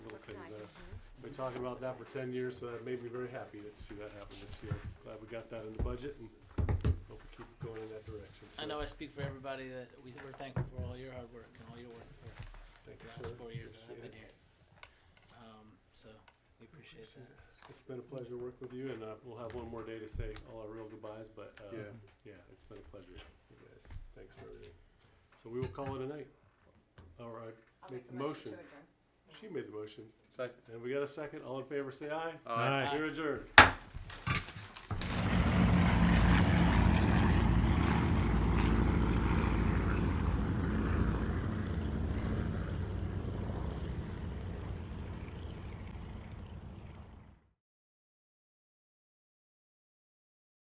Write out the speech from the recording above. Been talking about that for ten years, so that made me very happy to see that happen this year. Glad we got that in the budget and hope we keep going in that direction. So, I know I speak for everybody that we, we're thankful for all your hard work and all your work for Thank the you, last sir. four years that I've Appreciate it. been here. Um, so we appreciate Appreciate that. It's been a pleasure to work with you and, uh, we'll have one more day to say all our real goodbyes, but, uh, Yeah. yeah, it's been a pleasure, you guys. Thanks for everything. So we will call it a night. All right, I'll Make make the the motion to motion. adjourn. she made the motion. Second. And we got a second. All in favor, say aye. Aye. Aye. You're adjourned.